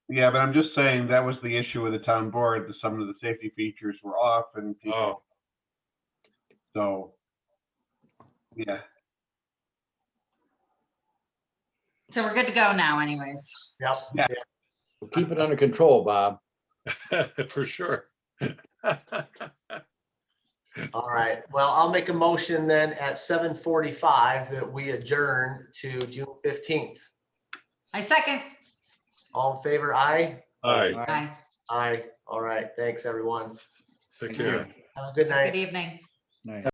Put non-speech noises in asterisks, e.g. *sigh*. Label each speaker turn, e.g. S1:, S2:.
S1: Yeah, but I'm just saying that was the issue with the town board, that some of the safety features were off and people,
S2: Oh, *laughs*
S1: so. Yeah,
S3: So we're good to go now anyways.
S4: Yep.
S1: Yeah.
S5: Keep it under control, Bob.
S2: for sure. *laughs*
S4: All right. Well, I'll make a motion then at seven forty-five that we adjourn to June fifteenth.
S3: I second.
S4: All in favor? Aye.
S2: All right,
S3: Aye.
S4: Aye. All right. Thanks, everyone.
S2: take care.
S4: Have a good night.
S3: Good evening.
S5: Nice.